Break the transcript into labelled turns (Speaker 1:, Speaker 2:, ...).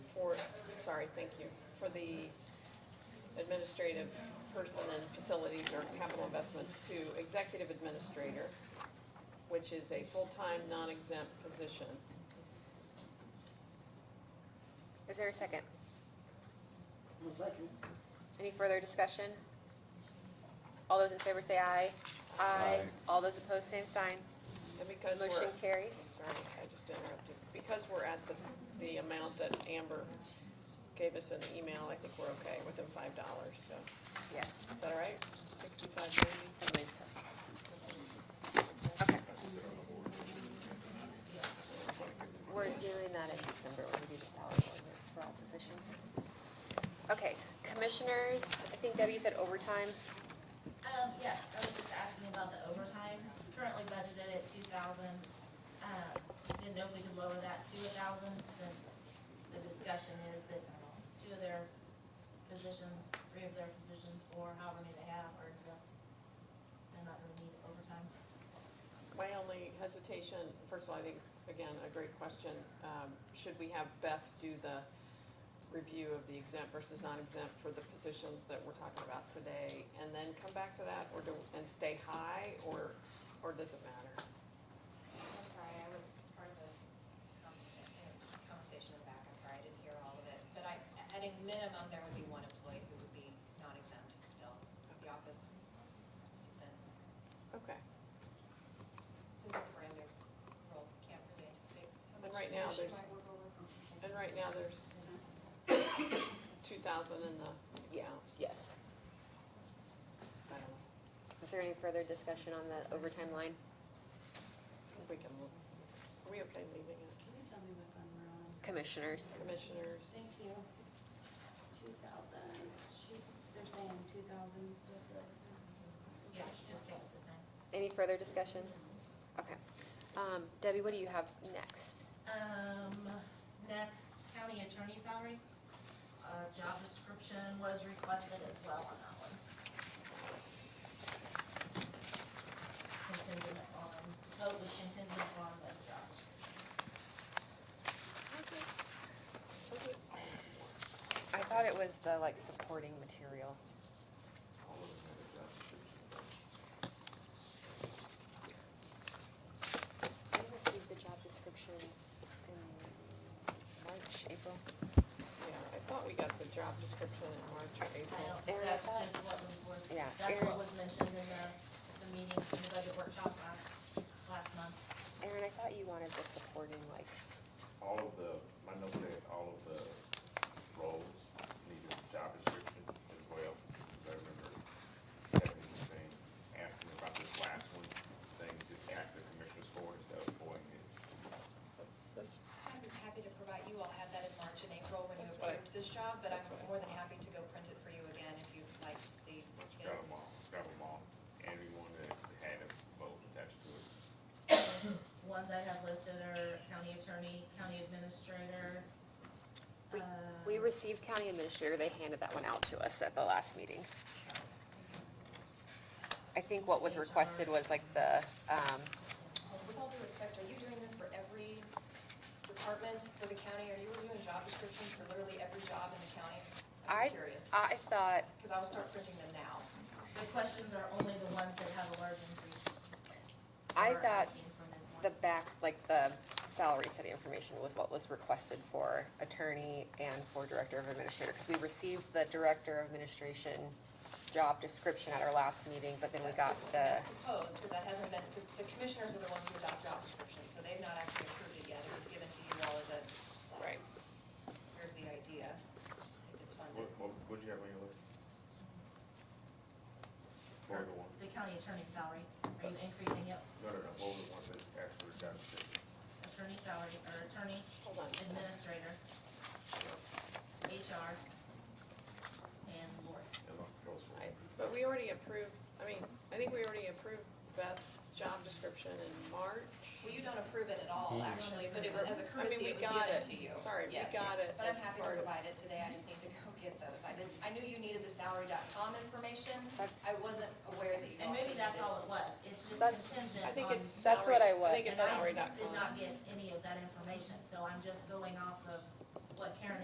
Speaker 1: sorry, thank you, for the administrative person and facilities or capital investments to executive administrator, which is a full-time, non-exempt position.
Speaker 2: Is there a second?
Speaker 3: One second.
Speaker 2: Any further discussion? All those in favor say aye. Aye. All those opposed, same sign.
Speaker 1: And because we're.
Speaker 2: Motion carries.
Speaker 1: I'm sorry, I just interrupted. Because we're at the, the amount that Amber gave us in the email, I think we're okay within five dollars, so,
Speaker 2: Yes.
Speaker 1: is that all right? Sixty-five ninety?
Speaker 2: I believe so. Okay. We're doing that in December when we do the salary ordinance for all positions. Okay, commissioners, I think Debbie said overtime.
Speaker 4: Um, yes, I was just asking about the overtime. It's currently budgeted at two thousand. Uh, didn't know if we could lower that to a thousand since the discussion is that two of their positions, three of their positions, or however many they have are exempt. They're not gonna need overtime.
Speaker 1: My only hesitation, first of all, I think it's, again, a great question. Um, Should we have Beth do the review of the exempt versus non-exempt for the positions that we're talking about today? And then come back to that, or do, and stay high, or, or does it matter?
Speaker 5: I'm sorry, I was part of the um, conversation in the back, I'm sorry, I didn't hear all of it. But I, at a minimum, there would be one employee who would be non-exempt still, the office assistant.
Speaker 1: Okay.
Speaker 5: Since it's a brand new role, can't really anticipate how
Speaker 1: And
Speaker 5: much.
Speaker 1: right now,
Speaker 5: she
Speaker 1: there's-
Speaker 5: might work over.
Speaker 1: And right now, there's two thousand in the, yeah,
Speaker 2: Yes.
Speaker 1: I don't know.
Speaker 2: Is there any further discussion on that overtime line?
Speaker 1: I think we can, are we okay leaving it?
Speaker 6: Can you tell me what fund we're on?
Speaker 2: Commissioners,
Speaker 1: Commissioners,
Speaker 6: Thank you. Two thousand, she's, they're saying two thousand, so.
Speaker 5: Yeah, she just gave it the same.
Speaker 2: any further discussion? Okay. Um, Debbie, what do you have next?
Speaker 4: Um, next, county attorney salary. Uh, job description was requested as well on that one. Contingent on, vote was contingent on the job description.
Speaker 2: I thought it was the like supporting material. We received the job description in March, April.
Speaker 1: yeah, I thought we got the job description in March or
Speaker 4: I
Speaker 1: April.
Speaker 4: don't,
Speaker 2: Erin, I
Speaker 4: that's
Speaker 2: thought-
Speaker 4: just what was, was,
Speaker 2: Yeah,
Speaker 4: that's
Speaker 2: Erin-
Speaker 4: what was mentioned in the, the meeting, in the budget workshop last, last month.
Speaker 2: Erin, I thought you wanted the supporting like,
Speaker 7: all of the, my notes say all of the roles need a job description as well. Because I remember Stephanie saying, asking about this last one, saying just ask the commissioners for it instead of voting it.
Speaker 1: This-
Speaker 5: I'm happy to provide, you all had that in March and April when you
Speaker 1: That's what I-
Speaker 5: approved this job, but I'm
Speaker 1: that's what I
Speaker 5: more than happy to go print it for you again if you'd like to see.
Speaker 7: But
Speaker 5: it.
Speaker 7: Scrap them all, scrap them all, everyone that had a vote attached to it.
Speaker 4: Ones I have listed are county attorney, county administrator.
Speaker 2: We-
Speaker 4: uh,
Speaker 2: we received county administrator, they handed that one out to us at the last meeting. I think what was requested was like the, um,
Speaker 5: With all due respect, are you doing this for every departments for the county? Are you reviewing job descriptions for literally every job in the county?
Speaker 2: I, um,
Speaker 5: I'm just curious,
Speaker 2: I thought
Speaker 5: because I will start printing them now.
Speaker 4: The questions are only the ones that have a large increase.
Speaker 2: I
Speaker 4: We're
Speaker 2: thought
Speaker 4: asking for midpoint.
Speaker 2: the back, like the salary study information was what was requested for attorney and for director of administrator, because we received the director of administration job description at our last meeting, but then we got the,
Speaker 5: That's proposed, because that hasn't been, because the commissioners are the ones who adopt job descriptions, so they've not actually approved it yet. It was given to you all as a,
Speaker 1: Right.
Speaker 5: here's the idea, if it's funded.
Speaker 7: What, what, what'd you have on your list? What were the one,
Speaker 4: The county attorney salary, are you increasing it,
Speaker 7: no, no, no, what were the ones that asked for the job description?
Speaker 4: attorney salary, or attorney,
Speaker 1: Hold on.
Speaker 4: administrator, HR, and Lord?
Speaker 7: And what goes for
Speaker 1: I-
Speaker 7: it?
Speaker 1: But we already approved, I mean, I think we already approved Beth's job description in March.
Speaker 5: Well, you don't approve it at all, actually, but it was, as a
Speaker 1: I mean, we
Speaker 5: courtesy, it was
Speaker 1: got it.
Speaker 5: given to you.
Speaker 1: Sorry, we
Speaker 5: Yes.
Speaker 1: got it
Speaker 5: But I'm
Speaker 1: as
Speaker 5: happy to
Speaker 1: part of-
Speaker 5: provide it today, I just need to go get those. I didn't, I knew you needed the salary.com information.
Speaker 2: That's-
Speaker 5: I wasn't aware that you
Speaker 4: And
Speaker 5: also
Speaker 4: maybe that's
Speaker 5: needed-
Speaker 4: all it was, it's just
Speaker 2: That's-
Speaker 4: contingent on.
Speaker 1: I think it's.
Speaker 2: That's what
Speaker 1: salary-
Speaker 2: I was-
Speaker 1: I think it's
Speaker 4: And I
Speaker 1: salary.com.
Speaker 4: did not get any of that information, so I'm just going off of what Karen